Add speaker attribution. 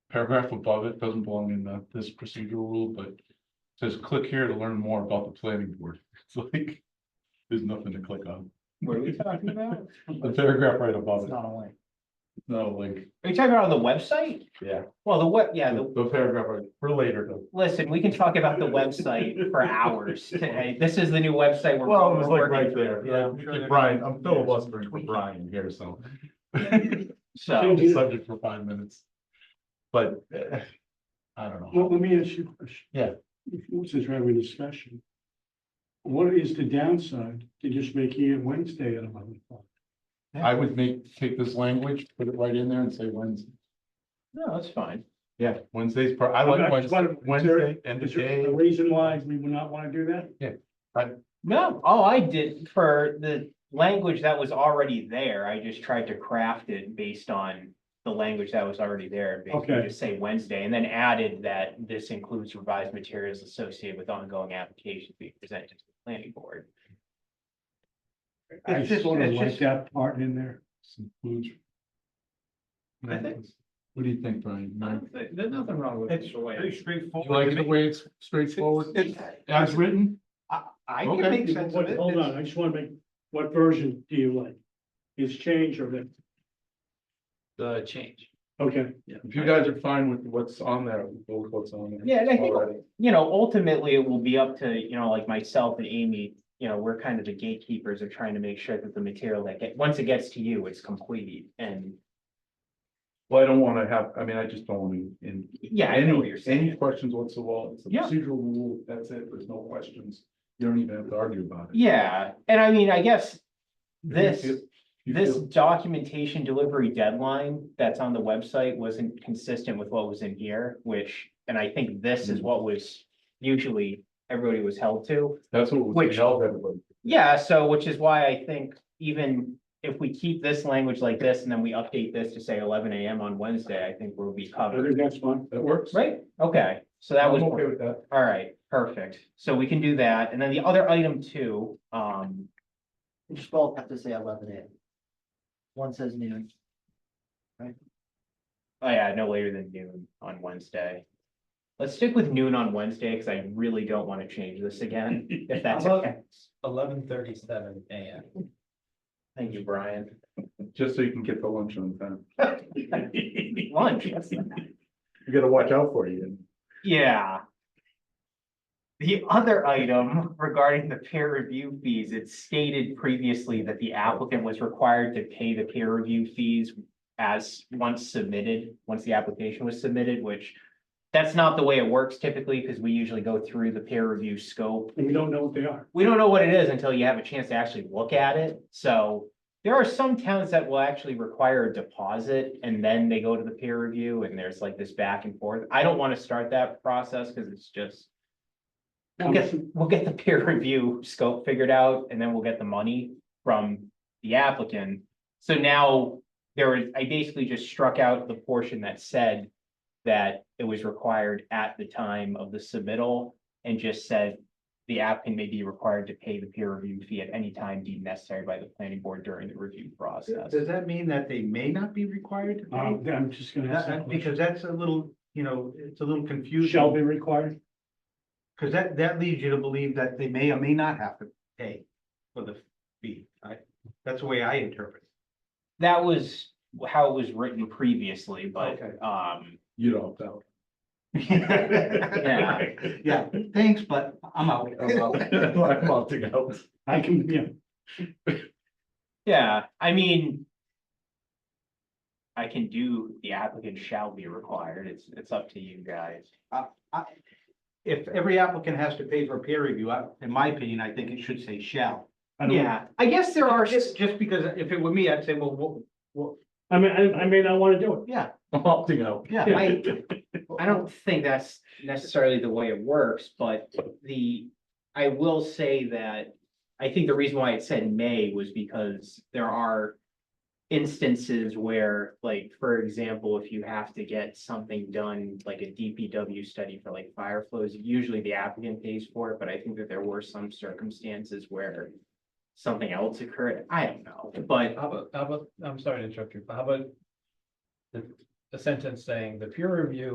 Speaker 1: paragraph above it doesn't belong in the- this procedural rule, but says click here to learn more about the planning board. It's like, there's nothing to click on.
Speaker 2: What are we talking about?
Speaker 1: The paragraph right above
Speaker 2: It's
Speaker 1: it,
Speaker 2: not a link.
Speaker 1: no link.
Speaker 2: Are you talking about on the website?
Speaker 1: Yeah.
Speaker 2: Well, the web, yeah, the,
Speaker 1: The paragraph right- for later though.
Speaker 2: listen, we can talk about the website for hours today. This is the new website we're.
Speaker 1: Well, it was
Speaker 2: we're
Speaker 1: like right
Speaker 2: working
Speaker 1: there.
Speaker 2: Yeah, I'm
Speaker 1: Yeah,
Speaker 2: sure they're
Speaker 1: Brian,
Speaker 2: gonna-
Speaker 1: I'm filibustering for Brian here, so. Change
Speaker 2: So,
Speaker 1: the subject for five minutes. But, eh, I don't know.
Speaker 3: Well, let me ask you a question.
Speaker 1: Yeah.
Speaker 3: If- Since we're having a discussion. What is the downside to just making it Wednesday at eleven o'clock?
Speaker 1: I would make, take this language, put it right in there and say Wednesday.
Speaker 2: no, that's fine.
Speaker 1: Yeah, Wednesday's, per- I like
Speaker 3: I'm not-
Speaker 1: Wednesday,
Speaker 3: is there-
Speaker 1: Wednesday, end of
Speaker 3: Is there
Speaker 1: day.
Speaker 3: a reason why we would not want to do that?
Speaker 2: No, all I did for the language that was already there, I just tried to craft it based on the language that was already there. and Basically
Speaker 3: Okay.
Speaker 2: just say Wednesday and then added that this includes revised materials associated with ongoing applications being presented to the planning board.
Speaker 3: I
Speaker 2: just-
Speaker 3: sort of
Speaker 2: it's
Speaker 3: like
Speaker 2: just-
Speaker 3: that part in there.
Speaker 1: some food.
Speaker 2: I think-
Speaker 1: What do you think, Brian? You
Speaker 2: There's nothing wrong with
Speaker 4: It's pretty straightforward.
Speaker 1: like the
Speaker 4: to me.
Speaker 1: way it's straightforward,
Speaker 4: It's-
Speaker 1: as written?
Speaker 4: I, I can
Speaker 1: Okay.
Speaker 4: make sense of
Speaker 3: What-
Speaker 4: it.
Speaker 3: Hold on, I just want to make, what version do you like? Is change or that?
Speaker 4: The change.
Speaker 3: Okay,
Speaker 1: If you guys are fine with what's on there, we'll go with what's on there.
Speaker 2: Yeah, and I think
Speaker 1: Alright.
Speaker 2: you know, ultimately, it will be up to, you know, like myself and Amy, you know, we're kind of the gatekeepers of trying to make sure that the material that get, once it gets to you, it's complete and,
Speaker 1: Well, I don't wanna have, I mean, I just don't wanna, in.
Speaker 2: yeah, I know what you're
Speaker 1: Any
Speaker 2: saying.
Speaker 1: questions whatsoever, it's a
Speaker 2: Yeah.
Speaker 1: procedural rule, that's it, there's no questions, you don't even have to argue about it.
Speaker 2: Yeah, and I mean, I guess
Speaker 1: If you
Speaker 2: this-
Speaker 1: feel- if you
Speaker 2: this
Speaker 1: feel-
Speaker 2: documentation delivery deadline that's on the website wasn't consistent with what was in here, which, and I think this
Speaker 1: Hmm.
Speaker 2: is what was usually everybody was held to.
Speaker 1: That's what we
Speaker 2: which-
Speaker 1: held everybody.
Speaker 2: Yeah, so which is why I think even if we keep this language like this and then we update this to say eleven AM on Wednesday, I think we'll be
Speaker 3: I
Speaker 2: covered.
Speaker 3: think that's fine.
Speaker 1: That works?
Speaker 2: Right, okay, so that was,
Speaker 1: I'm okay
Speaker 2: all
Speaker 1: with that.
Speaker 2: right, perfect. So we can do that. And then the other item too, um,
Speaker 5: We just both have to say eleven AM. One says noon.
Speaker 2: oh yeah, no later than noon on Wednesday. Let's stick with noon on Wednesday because I really don't want to change this again, if that's
Speaker 4: How about-
Speaker 2: okay.
Speaker 4: Eleven thirty-seven AM.
Speaker 2: Thank you, Brian.
Speaker 1: Just so you can get the lunch on time,
Speaker 2: Lunch.
Speaker 1: you gotta watch out for you.
Speaker 2: Yeah. The other item regarding the peer review fees, it stated previously that the applicant was required to pay the peer review fees as once submitted, once the application was submitted, which that's not the way it works typically, because we usually go through the peer review scope
Speaker 3: And we don't know what they are.
Speaker 2: we don't know what it is until you have a chance to actually look at it, so. There are some towns that will actually require a deposit and then they go to the peer review and there's like this back and forth. I don't wanna start that process, cause it's just. We'll get, we'll get the peer review scope figured out and then we'll get the money from the applicant. So now there is, I basically just struck out the portion that said that it was required at the time of the submittal and just said the applicant may be required to pay the peer review fee at any time deemed necessary by the planning board during the review process.
Speaker 4: Does that mean that they may not be required to pay?
Speaker 3: Um, I'm just gonna
Speaker 4: That-
Speaker 3: ask
Speaker 4: that-
Speaker 3: that question.
Speaker 4: Because that's a little, you know, it's a little
Speaker 3: Shall
Speaker 4: confusing,
Speaker 3: be required?
Speaker 4: because that, that leads you to believe that they may or may not have to pay for the fee. I, that's the way I interpret. it.
Speaker 2: That was how it was written previously, but,
Speaker 4: Okay.
Speaker 2: um,
Speaker 1: You'd opt out.
Speaker 2: Yeah.
Speaker 4: Yeah, thanks, but I'm out.
Speaker 1: I'm opting out.
Speaker 3: I can, yeah,
Speaker 2: yeah, I mean. I can do, the applicant shall be required, it's, it's up to you guys.
Speaker 4: If every applicant has to pay for peer review, I- in my opinion, I think it should say shall.
Speaker 3: I don't.
Speaker 2: Yeah, I guess there are,
Speaker 4: Just, just because if it were me, I'd say, well, well,
Speaker 3: I mean, I, I may not want to do it.
Speaker 4: yeah,
Speaker 1: I'm opting out.
Speaker 4: yeah.
Speaker 2: I, I don't think that's necessarily the way it works, but the, I will say that. I think the reason why it said may was because there are instances where, like, for example, if you have to get something done, like a DPW study for like fire flows, usually the applicant pays for it, but I think that there were some circumstances where something else occurred. I don't know, but
Speaker 6: How about, how about, I'm sorry to interrupt you, but how about the
Speaker 1: a sentence saying the peer review